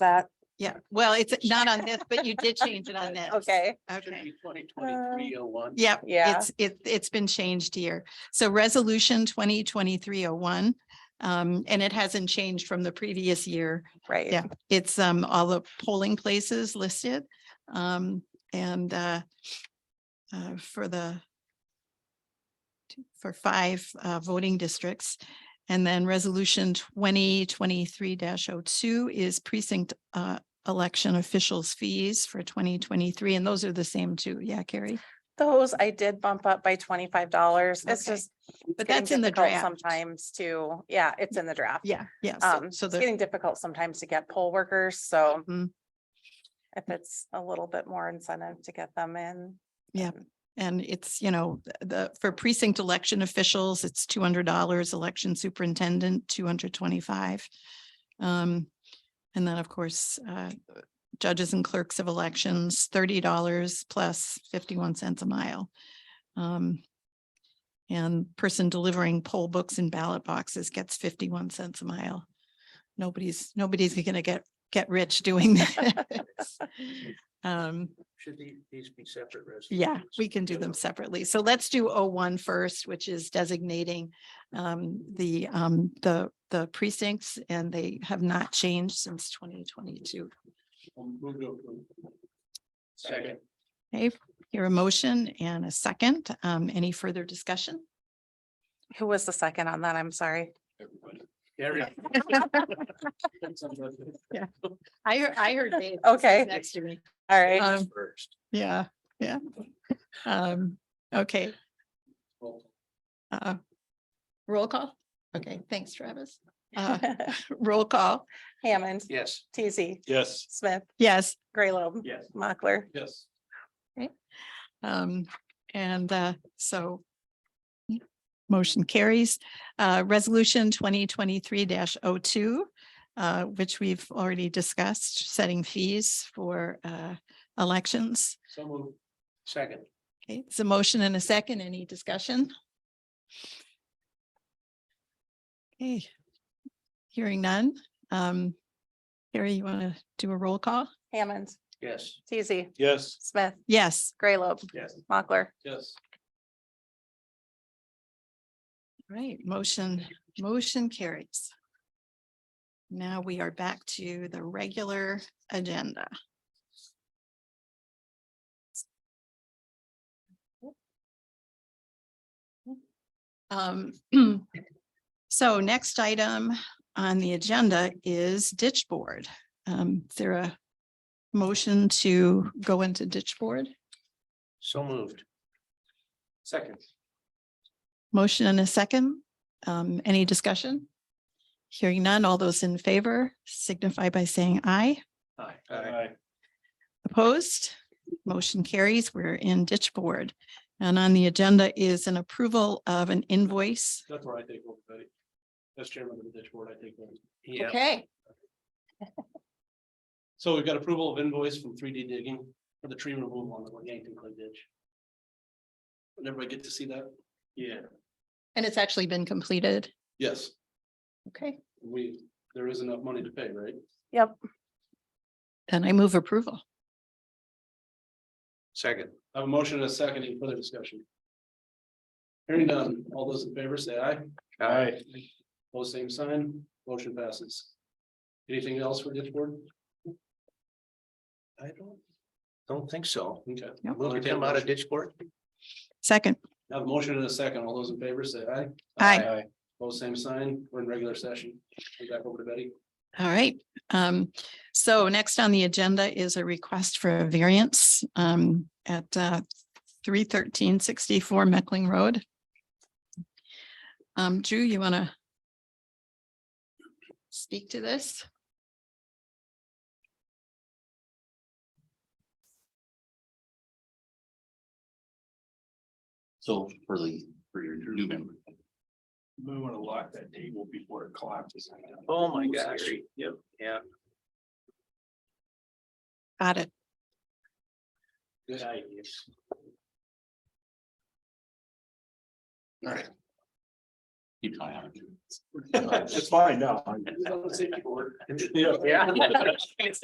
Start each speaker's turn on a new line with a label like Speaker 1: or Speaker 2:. Speaker 1: that?
Speaker 2: Yeah, well, it's not on this, but you did change it on this.
Speaker 1: Okay,
Speaker 2: Okay. Um,
Speaker 3: Twenty twenty-three oh one.
Speaker 2: Yep.
Speaker 1: yeah,
Speaker 2: It's, it, it's been changed here. So resolution twenty twenty-three oh one. Um, and it hasn't changed from the previous year.
Speaker 1: right.
Speaker 2: yeah. It's, um, all the polling places listed. Um, and, uh, uh, for the for five, uh, voting districts. And then resolution twenty twenty-three 2 is precinct, uh, election officials fees for twenty twenty-three. And those are the same too. Yeah, Carrie?
Speaker 1: Those I did bump up by twenty-five dollars. It's
Speaker 2: Okay.
Speaker 1: just. it's
Speaker 2: But
Speaker 1: getting
Speaker 2: that's in the
Speaker 1: difficult
Speaker 2: draft.
Speaker 1: Sometimes to, yeah, it's in the draft.
Speaker 2: Yeah, yeah. so-
Speaker 1: Um, it's
Speaker 2: So the,
Speaker 1: getting difficult sometimes to get poll workers, so
Speaker 2: Mhm.
Speaker 1: if it's a little bit more incentive to get them in.
Speaker 2: Yep.
Speaker 1: then-
Speaker 2: and it's, you know, th- the, for precinct election officials, it's two hundred dollars, election superintendent, two hundred twenty-five. Um, and then, of course, uh, judges and clerks of elections, thirty dollars plus fifty-one cents a mile. Um, and person delivering poll books and ballot boxes gets fifty-one cents a mile. Nobody's, nobody's gonna get, get rich doing that. Um,
Speaker 3: Should the- these be separate resolutions?
Speaker 2: yeah, we can do them separately. So let's do 01 first, which is designating um the um the the precincts and they have not changed since twenty twenty-two.
Speaker 3: Move to approve. Second.
Speaker 2: Okay, here a motion and a second. Um, any further discussion?
Speaker 1: Who was the second on that? I'm sorry.
Speaker 3: Everybody. Area.
Speaker 2: I heard, I heard Dave.
Speaker 1: Okay.
Speaker 2: Next to me.
Speaker 1: All right,
Speaker 2: Um,
Speaker 3: First.
Speaker 2: yeah, yeah. Um, okay, uh, roll call. Okay, thanks Travis. Uh, roll call.
Speaker 1: Hammond,
Speaker 3: Yes.
Speaker 1: TZ,
Speaker 3: Yes.
Speaker 1: Smith,
Speaker 2: Yes,
Speaker 1: Graylobe,
Speaker 3: Yes.
Speaker 1: Mochler.
Speaker 3: Yes.
Speaker 2: Um, and, uh, so motion carries, uh, resolution twenty twenty-three 2 uh, which we've already discussed, setting fees for, uh, elections.
Speaker 3: So move. Second.
Speaker 2: Okay, it's a motion and a second. Any discussion? Okay. Hearing none. Um, Carrie, you want to do a roll call?
Speaker 1: Hammond,
Speaker 3: Yes.
Speaker 1: TZ,
Speaker 3: Yes.
Speaker 1: Smith,
Speaker 2: Yes.
Speaker 1: Graylobe,
Speaker 3: Yes.
Speaker 1: Mochler.
Speaker 3: Yes.
Speaker 2: Right, motion, motion carries. Now we are back to the regular agenda. Um, So next item on the agenda is ditch board. Um, Is there a motion to go into ditch board?
Speaker 3: So moved. Second.
Speaker 2: Motion and a second. Um, any discussion? Hearing none, all those in favor signify by saying aye.
Speaker 3: Aye. Aye.
Speaker 2: Opposed? Motion carries. We're in ditch board. And on the agenda is an approval of an invoice.
Speaker 3: That's where I think we'll put it. That's chairman of the ditch board, I think. we'll- Yeah.
Speaker 2: Okay.
Speaker 3: So we've got approval of invoice from three D digging for the tree removal on the Yankton Clay Ditch. Did everybody get to see that? Yeah.
Speaker 2: And it's actually been completed.
Speaker 3: Yes,
Speaker 2: Okay.
Speaker 3: we, there is enough money to pay, right?
Speaker 1: Yep,
Speaker 2: Then I move approval.
Speaker 3: Second. I have a motion and a second, any further discussion? Hearing none, all those in favor say aye. Aye. Both same sign, motion passes. Anything else for ditch board? I don't, don't think so. Okay.
Speaker 2: Nope.
Speaker 3: Will it come out of ditch board?
Speaker 2: Second.
Speaker 3: I have a motion and a second, all those in favor say aye.
Speaker 2: Aye.
Speaker 3: Both same sign, we're in regular session. Go Back over to Betty.
Speaker 2: All right, um, so next on the agenda is a request for a variance, um, at, uh, three thirteen sixty-four Meckling Road. Um, Drew, you wanna speak to this?
Speaker 4: So for the, for your new member.
Speaker 3: We want to lock that table before it collapses. Oh, my gosh. Yep, yeah.
Speaker 2: Got it.
Speaker 3: Good idea.
Speaker 4: All right. Keep an eye on it.
Speaker 3: It's
Speaker 1: It's fine now.
Speaker 3: Just on the safety board.
Speaker 1: Yeah.